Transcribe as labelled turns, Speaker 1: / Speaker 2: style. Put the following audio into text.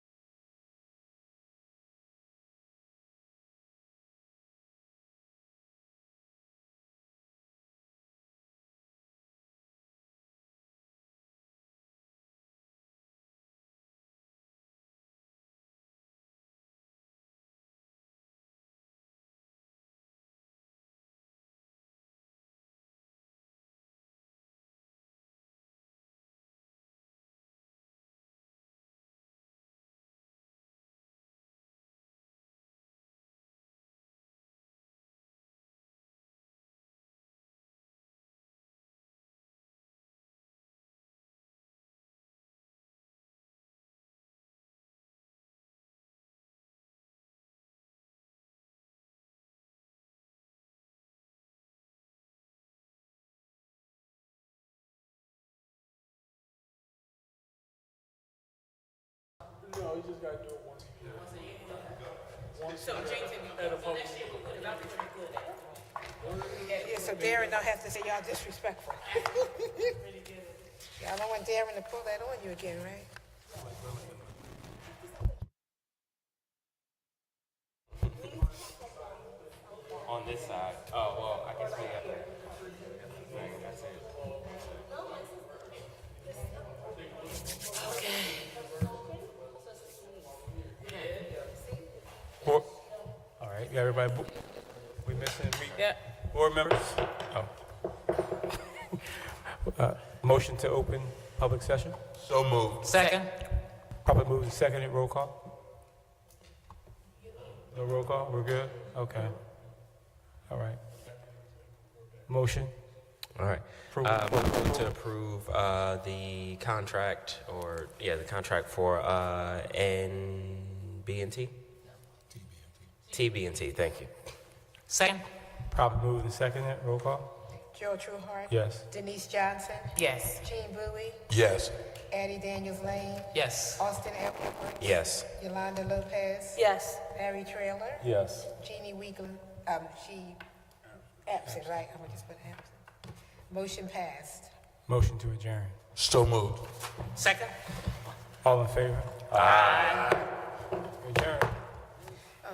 Speaker 1: No, you just gotta do it once a year.
Speaker 2: So James,
Speaker 1: At a
Speaker 2: so
Speaker 1: public,
Speaker 2: next year we'll put it out there pretty good.
Speaker 3: Yeah, yeah, so Darren don't have to say y'all disrespectful. Y'all don't want Darren to pull that on you again, right?
Speaker 4: On this side. Oh, well, I guess we have to. Like, that's it.
Speaker 5: Board- All right, you got everybody, bo- we missing, we,
Speaker 2: Yeah,
Speaker 5: board members? Oh. Uh, Motion to open public session?
Speaker 6: So moved.
Speaker 2: second.
Speaker 5: Probably moved and seconded, roll call? No roll call, we're good? Okay. All right. Motion?
Speaker 6: All right.
Speaker 5: Approve.
Speaker 6: Uh, we're going to approve uh, the contract, or yeah, the contract for uh, NBNT. TBNT. Thank you.
Speaker 2: Second?
Speaker 5: Probably moved and seconded, roll call?
Speaker 3: Joe Trueheart.
Speaker 5: Yes.
Speaker 3: Denise Johnson.
Speaker 2: Yes.
Speaker 3: Gene Bowie.
Speaker 6: Yes.
Speaker 3: Addie Daniels Lane.
Speaker 2: Yes.
Speaker 3: Austin Eckler.
Speaker 6: Yes.
Speaker 3: Yolanda Lopez.
Speaker 2: Yes.
Speaker 3: Barry Trailer.
Speaker 5: Yes.
Speaker 3: Jeannie Weigland, um, she absent, right? I'm gonna just put absent. Motion passed.
Speaker 5: Motion to adjourn.
Speaker 6: So moved.
Speaker 2: Second?
Speaker 5: All in favor? Aye. Adjourn.